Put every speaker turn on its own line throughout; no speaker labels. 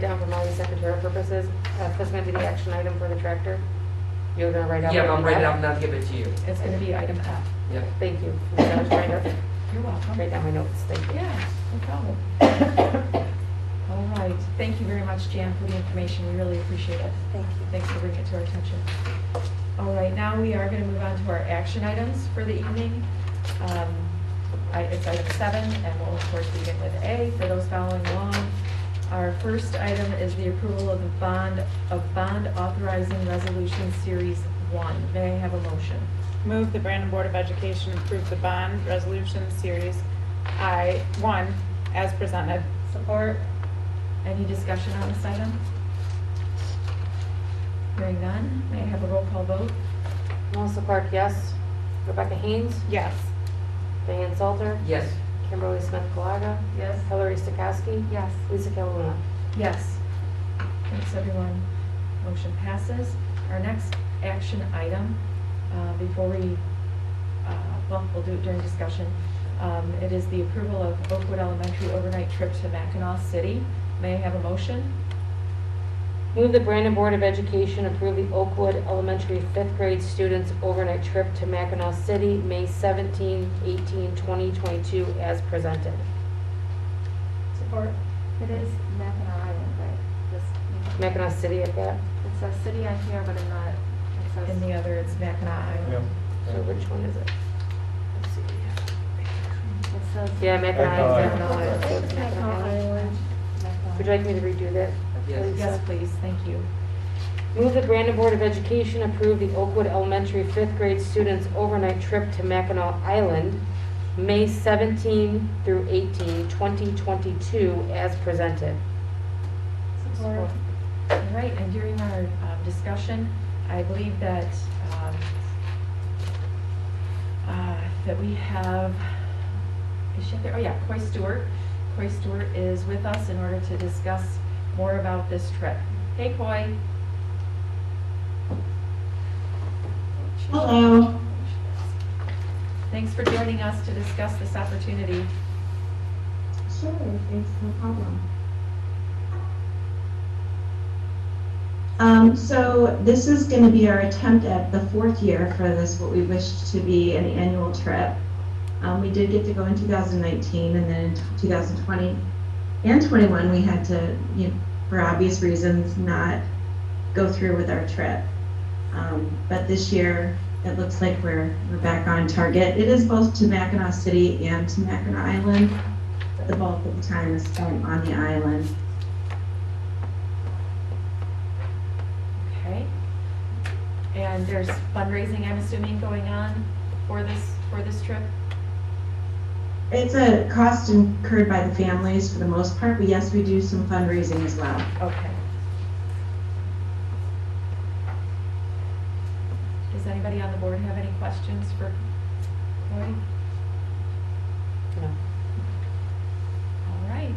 down for Molly's secretarial purposes, uh, that's gonna be the action item for the tractor. You're gonna write out.
Yeah, I'll write it out
item
and I'll give it to you.
It's gonna be item F.
F?
Yeah.
Thank you. I was trying to
You're welcome.
write down my notes, thank you.
Yeah, no problem. All right, thank you very much, Jan, for the information, we really appreciate it.
Thank you.
Thanks for bringing it to our attention. All right, now we are going to move on to our action items for the evening. Um, I- It's item seven, and we'll of course begin with A for those following along. Our first item is the approval of the bond, of bond authorizing resolution series one. May I have a motion?
Move the Brandon Board of Education approve the bond resolution series I, one, as presented.
Support. Any discussion on this item? Hearing none, may I have a roll call vote?
Melissa Clark, yes. Rebecca Haynes,
Yes.
Diane Salter,
Yes,
Kimberly Smith Colaga,
Yes.
Hillary Stokowski,
Yes.
Lisa Calhoun.
Yes. Thanks, everyone. Motion passes. Our next action item, uh, before we, uh, well, we'll do it during discussion. Um, It is the approval of Oakwood Elementary overnight trip to Mackinac City. May I have a motion?
Move the Brandon Board of Education approve the Oakwood Elementary fifth grade students overnight trip to Mackinac City, May 17, 18, 20, 22, as presented.
Support. It is Mackinac Island, right? This-
Mackinac City at that.
It says city on here, but I'm not, it says.
And the other is Mackinac Island.
So which one is it? Let's see.
It says.
Yeah, Mackinac
Mackinac
Island.
Mackinac Island.
Mackinac.
Would you like me to redo that?
yes.
Please.
Yes, please, thank you.
Move the Brandon Board of Education approve the Oakwood Elementary fifth grade students overnight trip to Mackinac Island, May 17 through 18, 2022, as presented.
Support. All right, and during our um, discussion, I believe that, um, uh, that we have, is she up there? Oh, yeah, Coy Stewart. Coy Stewart is with us in order to discuss more about this trip. Hey, Coy.
Hello.
Thanks for joining us to discuss this opportunity.
Sure, thanks, no problem. Um, so this is gonna be our attempt at the fourth year for this, what we wished to be an annual trip. Um, we did get to go in two thousand nineteen and then in two thousand twenty and twenty-one, we had to, you know, for obvious reasons, not go through with our trip. Um, but this year, it looks like we're, we're back on target. It is both to Mackinac City and to Mackinac Island the bulk of the time is spent on the island.
Okay. And there's fundraising, I'm assuming, going on for this, for this trip?
It's a cost incurred by the families for the most part, but yes, we do some fundraising as well.
Okay. Does anybody on the board have any questions for Cory?
No.
All right.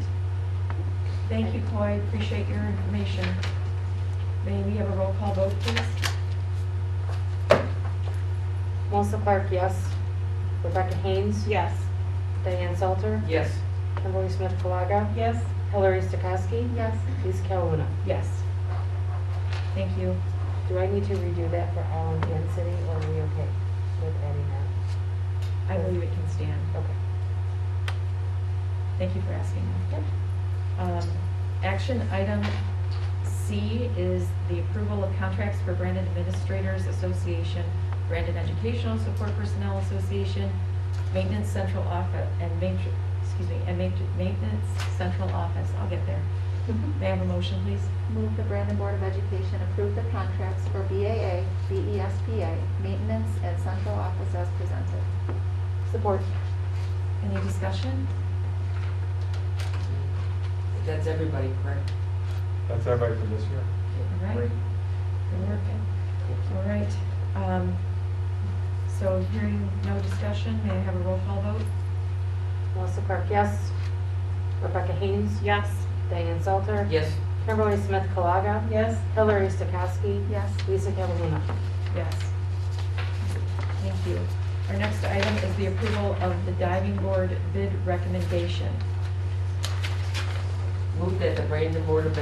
Thank you, Coy. Appreciate your information. May we have a roll call vote, please?
Melissa Clark, yes. Rebecca Haynes,
Yes.
Diane Salter,
Yes,
Kimberly Smith Colaga,
Yes.
Hillary Stokowski,
Yes,
Lisa Calhoun.
Yes. Thank you.
Do I need to redo that for Allen and City, or are we okay with adding
I believe it can stand.
that? Okay.
Thank you for asking.
Yep.
Um, Action item C is the approval of contracts for Brandon Administrators Association, Brandon Educational Support Personnel Association, Maintenance Central Office, and Matri, excuse me, and Matri- Maintenance Central Office. I'll get there. May I have a motion, please?
move the Brandon Board of Education approve the contracts for BAA, E BESPA, maintenance and central office as presented.
Support.
Any discussion?
that's everybody, correct?
That's everybody for this year.
All right.
Great.
Good work. All right. Um, So hearing no discussion, may I have a roll call vote?
Melissa Clark, yes. Rebecca Haynes,
Yes.
Diane Salter,
Yes,
Kimberly Smith Colaga,
Yes.
Hillary Stokowski,
Yes,
Lisa Calhoun.
Yes. Thank you. Our next item is the approval of the diving board bid recommendation.
move that the Brandon Board of